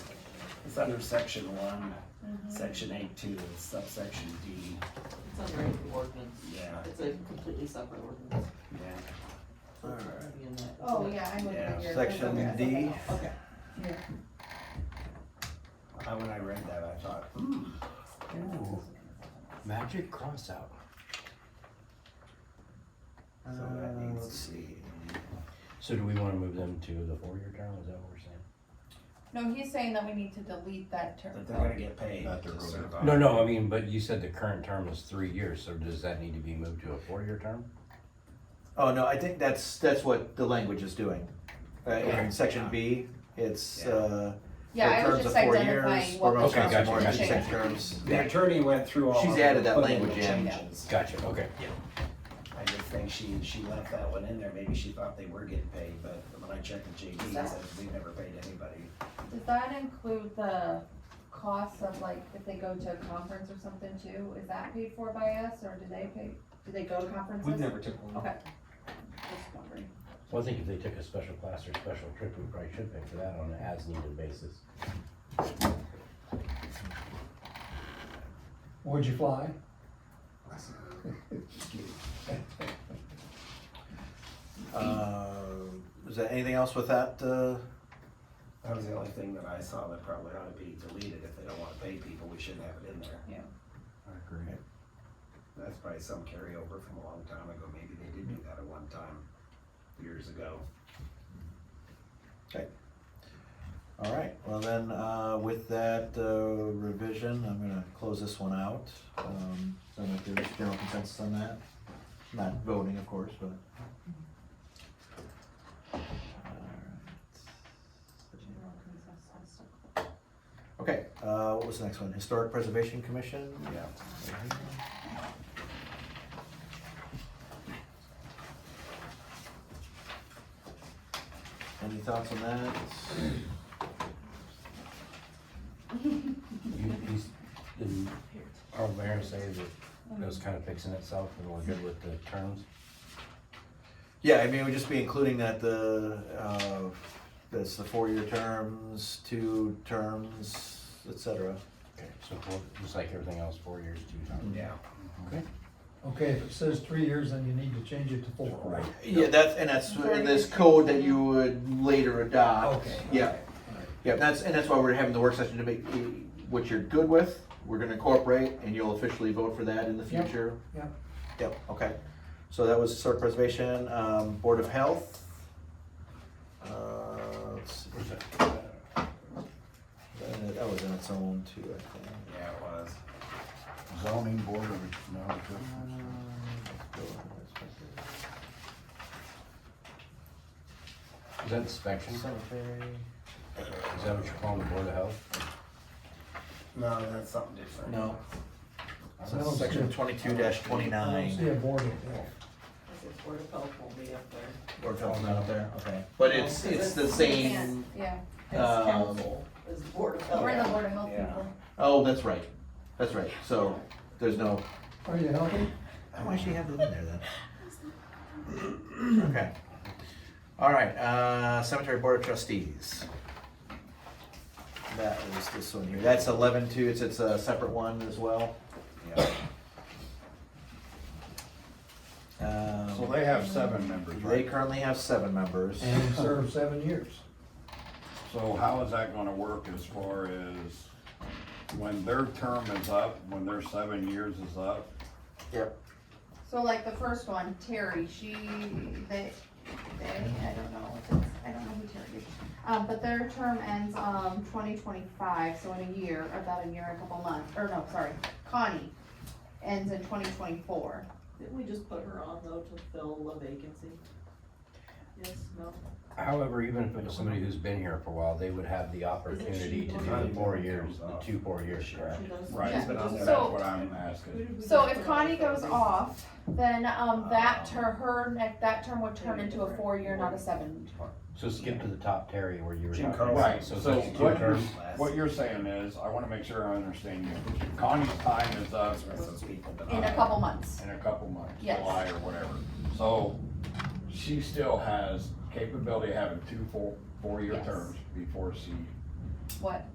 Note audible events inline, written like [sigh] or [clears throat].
It's under section one, Mm-hmm. section eight two, subsection D, It's under a new ordinance. yeah, It's a completely separate ordinance. yeah. All right. In that- Oh, yeah, I'm looking Yeah, at your. Section D, Okay. Here. I, when I read that, I thought, hmm, Ooh, magic cross out. so that Uh, needs let's to see. be. So do we wanna move them to the four-year term, is that what we're saying? No, he's saying that we need to delete that That term. they're gonna get paid Not their to own. serve No, on. no, I mean, but you said the current term is three years, so does that need to be moved to a four-year term? Oh, no, I think that's, that's what the language is doing. Uh, Okay. in section B, it's, uh, Yeah, for I was terms of just four identifying years, what. or most we Okay, times gotcha, more than gotcha. six terms. The attorney went through all. She's of added the that applicable language in. changes. Gotcha, okay. I just think she, she left that one in there, maybe she thought they were getting paid, but when I checked the JD, it says we never paid anybody. Does that include the costs of like, if they go to a conference or something too, is that paid for by us, or do they pay, do they go to conferences? We've never took one. Okay. Just wondering. Well, I think if they took a special class or special trip, we probably should pay for that on an as-needed basis. Where'd you fly? Uh, is there anything else with that, uh, That was the only thing that I saw that probably ought to be deleted, if they don't wanna pay people, we shouldn't have it in there. I agree. That's probably some carryover from a long time ago, maybe they did do that at one time, years ago. all right, well then, uh, with that, uh, revision, I'm gonna close this one out. Um, so if there's general consensus on that, not voting, of course, but. General consensus. Okay, uh, what was the next one? Historic Preservation Commission? Yeah. Any thoughts on that? You, he's, did our mayor say that it was kinda fixing itself and we're good with the terms? Yeah, I mean, we'd just be including that the, uh, that's the four-year terms, two terms, et cetera. Okay. So four, just like everything else, four years, two terms. Yeah. Okay. Okay, if it says three years, then you need to change it to four. Right. Yeah, that's, and that's in this code that you would later adopt. Okay. Yeah, yeah, that's, and that's why we're having the work session to make, eh, what you're good with, we're gonna incorporate, and you'll officially vote for that in the Yep. future. Yep. Yep, okay. So that was historic preservation, um, Board of Health. Uh, let's see, Where's that? that that was in its own too, I think. Yeah, it was. Zoning board of, no, adjustments. Is that inspection? Is Cemetery. that what you're calling the Board of Health? No, that's something different. No. I So don't Section see- twenty-two dash I don't see twenty-nine. a board of health. This is Board of Health will be up there. Board of Health's not up there, okay. But it's, it's the same, Yeah, As Um, council, as Board of Health. we're the board of health Yeah. people. oh, that's right, that's right, so, there's no. Are you helping? Oh, I should have it in there then. [clears throat] Okay. All right, uh, Cemetery Board of Trustees. That was this one here, that's eleven two, it's, it's a separate one as well. Yeah. Um, So they have seven members, They right? currently have seven members. And [laughs] serve seven years. So how is that gonna work as far as when their term is up, when their seven years is up? Yep. So like the first one, Terry, she, they, they, I don't know, if it's- I don't know who Terry is. Um, but their term ends, um, twenty twenty-five, so in a year, or about a year, and a couple months, or no, sorry, Connie ends in twenty twenty-four. Didn't we just put her on though to fill a vacancy? Yes, no? However, even if it was somebody who's been here for a while, they would have the opportunity to do the four years, the two four years, correct? She does- Right, Yeah. but that's So- what I'm Who asking. did we So just if put on Connie for goes vacancy? off, then, um, that Um, ter, her, neck- that term would turn into a four-year, not a seven. So skip to the top, Terry, where you were. Jim talking Carlson. about- Right, so So substitute what you're, terms. what you're saying is, I wanna make sure I understand you. Connie's time is up That's where those people that In a I- couple months. in a couple months, Yes. July or whatever. So she still has capability of having two full, four-year Yes. terms before she What?